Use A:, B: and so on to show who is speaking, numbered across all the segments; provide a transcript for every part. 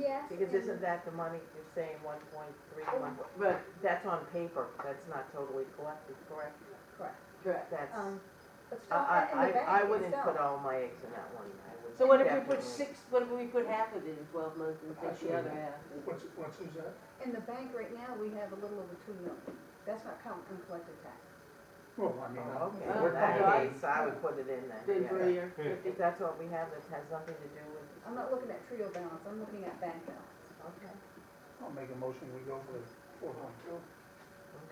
A: Yes.
B: Because isn't that the money you're saying, one point three, one,
C: Right,
B: that's on paper, that's not totally collected, correct?
A: Correct.
C: correct.
B: That's,
A: Um, But
B: I,
A: stop that in the
B: I,
A: bank.
B: I- I wouldn't
A: yourself.
B: put all my eggs in that one, I would.
C: So what if we
B: definitely-
C: put six, what if we put half of it in twelve months and take the other half?
D: What's, what's is that?
A: In the bank right now, we have a little over two million. That's not counting uncollected tax.
D: Well, I mean,
B: Oh, Okay,
C: Oh,
B: in that
C: okay.
B: case, I would put it in there,
C: Then for
B: yeah.
C: your fifty,
B: If that's what we have, that has nothing to do with,
A: I'm not looking at trio balance, I'm looking at bank balance.
B: okay,
D: I'll make a motion, we go for four point two.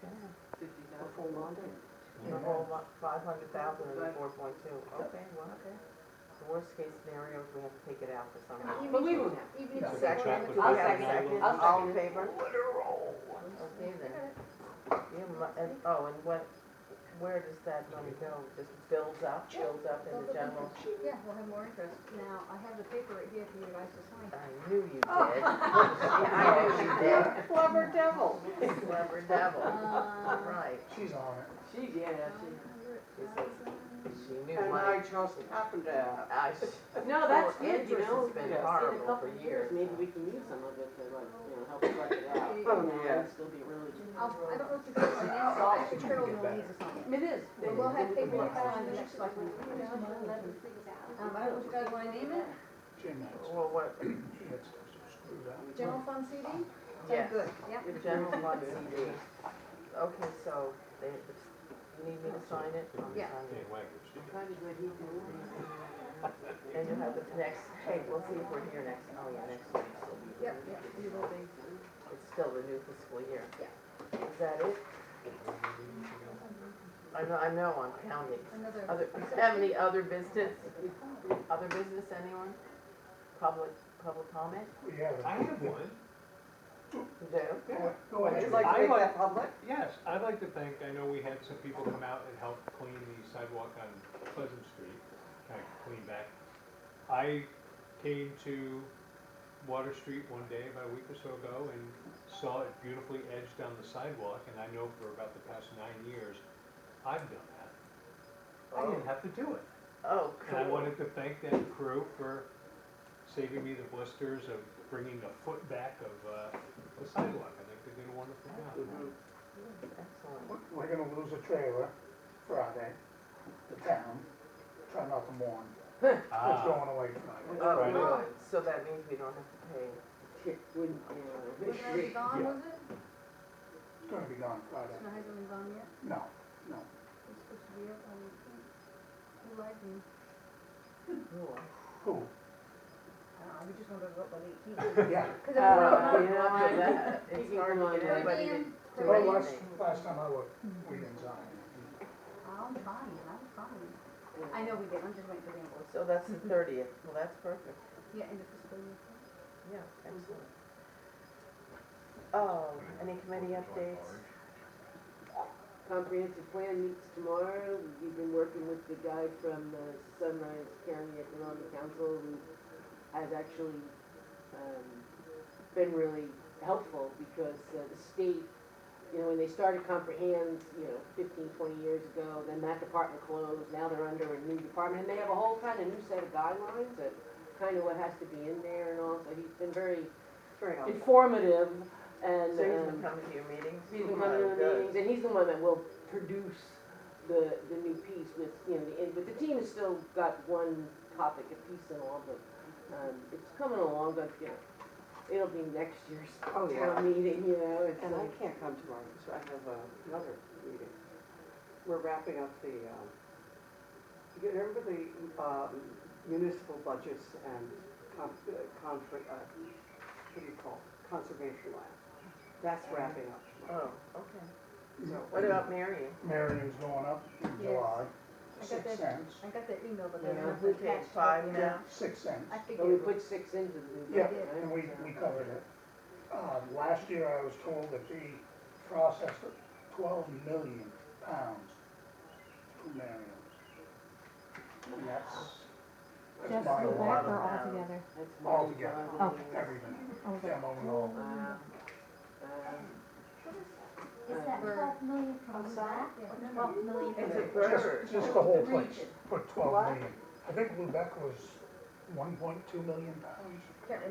B: okay.
C: fifty thousand.
B: The whole five hundred thousand and
C: Right.
B: four point two, okay, well, okay. The worst case scenario is we have to take it out for some reason.
A: Even
C: But we
A: if-
C: won't have.
A: Even if you
D: I'll
A: say
B: Second,
A: we're in the.
E: check with
B: we have a
C: I'll
E: the
C: second.
B: second,
C: I'll
B: all in
C: second.
B: favor?
E: Let her roll.
B: Okay then, you, mu- and, oh, and what, where does that money go? Just builds up, builds up in the general?
A: Yeah, we'll have more interest. Now, I have the paper right here for you guys to sign.
B: I knew you did. Yeah, I
C: Clever devil.
B: knew you did, clever devil,
A: Uh,
B: right,
D: She's on it.
C: She, yeah, she.
A: 500,000.
B: she knew money.
C: trust Carpenter.
B: I s-
C: No, that's
B: Well,
C: good, you
B: interest
C: know.
B: has been
C: yeah, in a
B: horrible for
C: couple years,
B: years.
C: Maybe we can use some of it to like, you know, help us it out.
A: Oh,
C: you know,
B: yeah.
C: and Still be really.
A: I'll, I don't know if you can sign it, but actually Carol will need to sign it.
C: It is.
A: Well, we'll have paperwork on the next slide. Um, I don't know if you guys wanna name it,
D: Jim had,
B: well, what,
D: she had stuff so screwed up.
A: general fund CD?
B: yes,
A: Good, yep.
B: the general fund CD. Okay, so, they, you need me to sign it? I'm
A: Yeah.
B: signing it.
C: Why did we need to-
B: And you have the next, hey, we'll see if we're here next, oh yeah, next week, so we.
A: Yep, yep, you will be.
B: It's still the new fiscal year.
A: Yeah.
B: Is that it? I know, I know, I'm counting.
A: Another,
B: Other, have any other business? Other business, anyone? Public, public comment?
D: We have it.
E: I have one.
B: You do?
D: Yeah, Go ahead.
E: like to make that
C: public?
E: Yes, I'd like to thank, I know we had some people come out and help clean the sidewalk on Pleasant Street, kind of clean back. I came to Water Street one day about a week or so ago and saw it beautifully edged on the sidewalk, and I know for about the past nine years, I've done that. I didn't have to do it.
B: Oh,
E: And I
B: cool.
E: wanted to thank that crew for saving me the blisters of bringing a foot back of, uh, the sidewalk. I think they did a wonderful job.
B: Excellent.
D: We're- We're gonna lose a trailer Friday, the town, try not to mourn, it's
E: Ah,
D: going away Friday.
B: Oh,
E: Friday.
B: well, so that means we don't have to pay.
C: Wouldn't,
A: was it already gone,
E: Yeah.
A: was it?
D: It's gonna be gone Friday,
A: No, it hasn't been gone yet.
D: no, no.
A: It's supposed to be up on, who lied to me?
B: Cool.
D: Who?
A: I don't know, we just wanted to vote by the 18th.
D: Yeah,
A: Cause if we don't,
C: Uh,
A: know-
C: yeah.
B: After that,
C: You
B: It's
C: can
B: hard to
C: go
B: get
C: on.
B: anybody to do
D: well, last,
B: anything.
D: last time I looked, we didn't sign it.
A: I'm fine, I'm fine.
C: uh,
A: I know we did, I'm just waiting for the invoice.
B: So that's the thirtieth, well, that's perfect.
A: Yeah, end of fiscal year.
B: Yeah, excellent. Oh, any committee updates?
C: Comprehensive plan meets tomorrow. We've been working with the guy from the Sunrise County Economic Council who has actually um, been really helpful because uh, the state, you know, when they started Comprehend, you know, 15, 20 years ago, then that department closed. Now they're under a new department and they have a whole kind of new set of guidelines of kind of what has to be in there and all. So he's been very
B: Very
C: informative and.
B: So he's
C: um,
B: been coming to your meetings?
C: He's the one
B: Oh,
C: in the
B: good.
C: meetings, and he's the one that will produce the, the new piece with, you know, the, end. but the team has still got one topic a piece and all, but, um, it's coming along, but, you know, it'll be next year's
F: Oh, yeah.
C: town meeting, you know, it's
F: And I
C: like,
F: can't come tomorrow, so I have uh, another meeting. We're wrapping up the, um, you remember the um, municipal budgets and con- uh, conflict, uh, what do you call, it? conservation land? That's wrapping up tomorrow.
B: Oh, okay. What about Marion?
D: Marion's going up in
A: Yes.
D: July,
A: I got
D: six
A: that-
D: cents,
A: I got that email, but
C: Yeah,
A: they're not
B: who pays
A: attached.
B: five
A: Yeah.
B: now?
D: six cents.
A: I
C: but we
A: figured,
C: put six into the.
D: Yeah,
C: budget, right?
D: and we, we covered it. Um, last year I was told that they processed twelve million pounds to Marion. And that's, that's
G: Just
D: my
G: the back
D: lot of
G: or
B: pounds.
G: altogether?
C: That's
D: All
C: one
D: together.
C: budget.
D: everything,
G: Over.
D: them all.
C: Wow. Uh,
H: Is that
A: Bird.
H: twelve million from that?
A: Oh, Yeah.
H: Twelve million
B: It's a
H: from
B: bird.
D: Just, just the whole
A: The
D: place,
A: region.
D: put twelve million. I think Lubec was one point two million pounds.
A: can't remember